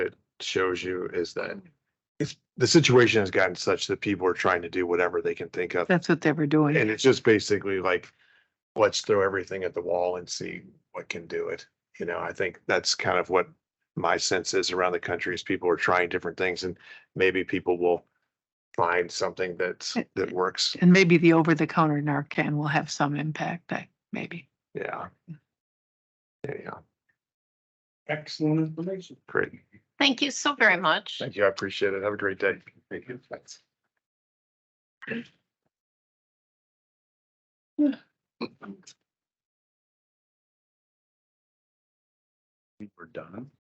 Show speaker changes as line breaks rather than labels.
shows you is that it's, the situation has gotten such that people are trying to do whatever they can think of.
That's what they were doing.
And it's just basically like, let's throw everything at the wall and see what can do it. You know, I think that's kind of what my sense is around the country is people are trying different things and maybe people will find something that's, that works.
And maybe the over-the-counter Narcan will have some impact, I, maybe.
Yeah. Yeah, yeah,
Excellent information.
great.
Thank you so very much.
Thank you. I appreciate it. Have a great day. Thank you. Thanks.
We're done.